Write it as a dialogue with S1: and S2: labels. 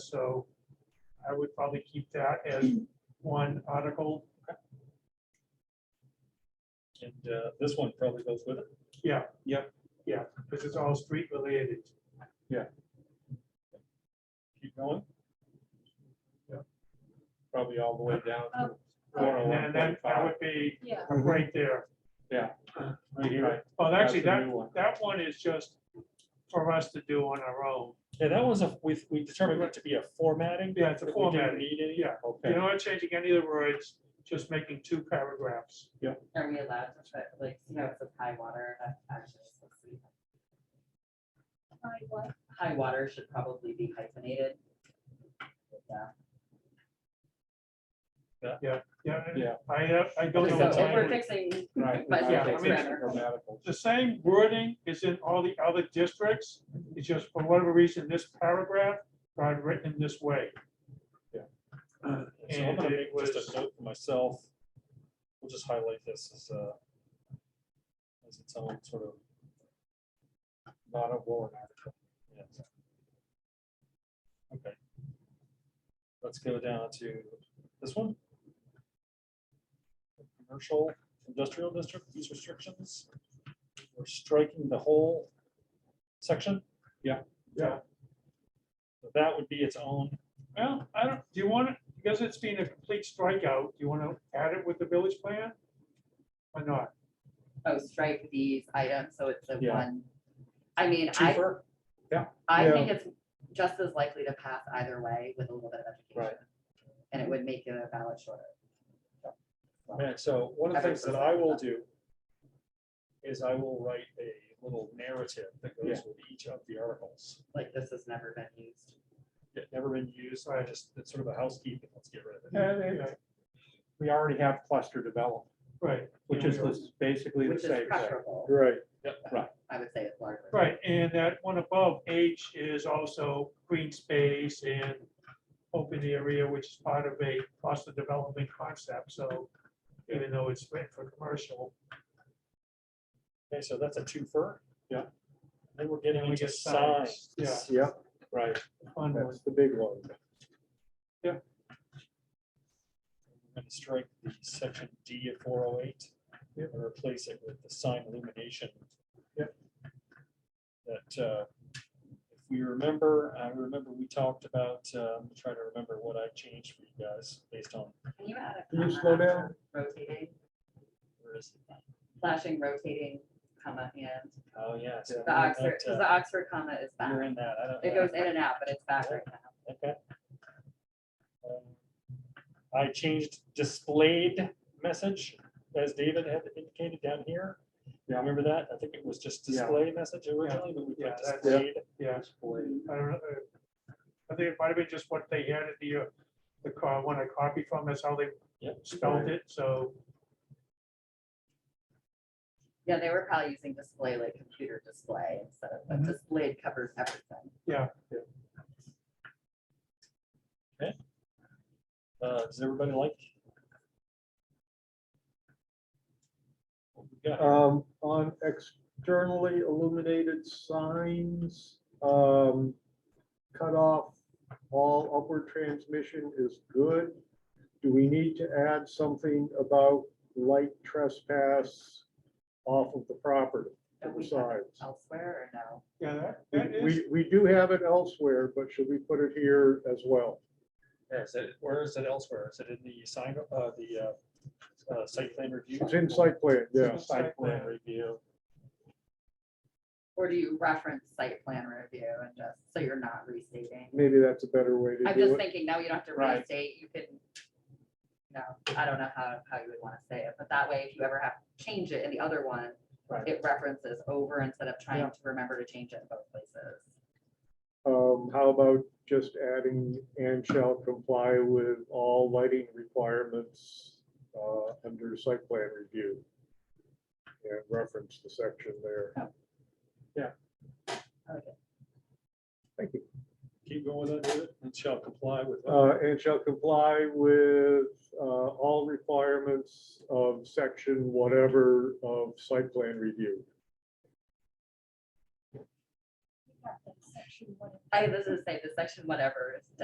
S1: so I would probably keep that as one article.
S2: And uh, this one probably goes with it.
S1: Yeah.
S2: Yeah.
S1: Yeah, because it's all street related.
S2: Keep going.
S1: Yeah.
S2: Probably all the way down. to
S1: And then Oh. that
S2: 401.25.
S1: that would be
S3: Yeah,
S1: right there.
S2: Right here.
S1: Well,
S2: That's
S1: actually,
S2: the
S1: that,
S2: new one.
S1: that one is just for us to do on our own.
S2: Yeah, that was a, we, we determined it to be a formatting.
S1: Yeah, it's a
S2: that we didn't
S1: formatting.
S2: Need any?
S1: Yeah. You're
S2: Okay.
S1: not changing any of the words, just making two paragraphs.
S4: Are we allowed to put, like, you know, it's a high water, that actually, is- let's see.
S3: I was,
S4: high water should probably be hyphenated. Yeah.
S1: Yeah. and
S2: Yeah.
S1: I, have- I
S4: So
S1: don't know. what
S4: if we're
S1: language-
S4: fixing,
S2: Right.
S4: But
S1: yeah,
S2: Okay,
S1: I mean-
S2: so grammatical.
S1: The same wording is in all the other districts. It's just for whatever reason, this paragraph got written this way.
S2: So I'm gonna
S1: And
S2: make
S1: it
S2: just
S1: was-
S2: a note for myself. We'll just highlight this as a. As its own sort of. Not a warrant article. Yes. Okay. Let's go down to this one. Commercial industrial district, use restrictions. We're striking the whole section.
S1: Yeah. Yeah.
S2: That would be its own,
S1: Well, I don't, do you want it, because it's been a complete strikeout, do you want to add it with the village plan? Or not?
S4: oh, strike these items, so it's a
S2: Yeah.
S4: one. I mean, I,
S2: cheaper.
S4: I
S2: Yeah.
S4: think it's just as likely to pass either way with a little bit of education. And it would make it a ballot shorter.
S2: Man, so one of the things that I will do is I will write a little narrative that goes with each of the articles.
S4: Like, this has never been used.
S2: It never been used, I just, it's sort of a housekeeping, let's get rid of it.
S5: Yeah, they-
S1: Yeah,
S5: We already have cluster development,
S1: Right,
S5: which is this- basically the
S4: Which is
S5: same thing.
S4: preferable,
S5: Right.
S4: I would say, it's larger.
S1: right, and that one above H is also green space and open area, which is part of a cluster development concept, so even though it's meant for commercial,
S2: Okay, so that's a twofer.
S5: Yeah.
S2: Then we're getting
S1: Then we
S2: into
S1: get signs.
S2: signs.
S1: Yeah.
S5: Yep,
S2: Right.
S1: fun one.
S5: the big one.
S2: We're gonna strike the section D of four oh eight. And replace it with the sign illumination. Yep. That, uh, if we remember, I remember we talked about, um, trying to remember what I changed for you guys based on.
S4: Can you add a
S5: Can you
S4: comma
S5: slow
S4: after
S5: down?
S4: Rotating,
S2: where is it?
S4: flashing, rotating, comma, and
S2: Oh, yes.
S4: the Oxford, because the Oxford comma is back.
S2: uh, You're in that. I don't.
S4: It goes in and out, but it's back right now.
S2: Okay. Um, I changed displayed message, as David had indicated down here. You remember that? I think it was just
S5: Yeah.
S2: display message originally, but we
S1: Yeah,
S2: put
S1: that's-
S2: displayed.
S1: yeah.
S2: Mm-hmm.
S1: I don't know. uh, I think it might have been just what they had at the, uh, the car, when I copied from, that's how they
S2: Yep.
S1: spelled it, so,
S4: Yeah, they were probably using display like computer display instead of,
S1: Mhm.
S4: but
S5: Mm-hmm.
S4: displayed covers everything.
S2: Uh, Does everybody like? what we got?
S5: Um, on externally illuminated signs, um, cut off all upward transmission is good. Do we need to add something about light trespass off of the property?
S4: But we have it
S5: Signs.
S4: elsewhere or no?
S1: yeah, that, that is.
S5: We, we do have it elsewhere, but should we put it here as well?
S2: Yeah, Is it, where is it elsewhere? Is it in the sign, uh, the uh, uh, site plan review?
S5: It's in site plan, yeah.
S2: Site plan review.
S4: Or do you reference site plan review and just, so you're not restating?
S5: Maybe that's a better way to
S4: I'm
S5: do
S4: just
S5: it.
S4: thinking now you don't have to
S2: Right.
S4: restate, you can. No, I don't know how, how you would want to say it, but that way if you ever have to change it in the other one,
S2: Right.
S4: it references over instead of
S2: Yeah.
S4: trying to remember to change it in both places.
S5: Um, how about just adding and shall comply with all lighting requirements uh, under site plan review? And reference the section there.
S4: I like it.
S5: Thank you.
S2: Keep going with that, David, and shall comply with.
S5: Uh, and shall comply with uh, all requirements of section whatever of site plan review.
S3: we got that section one.
S4: I, this is say the section whatever is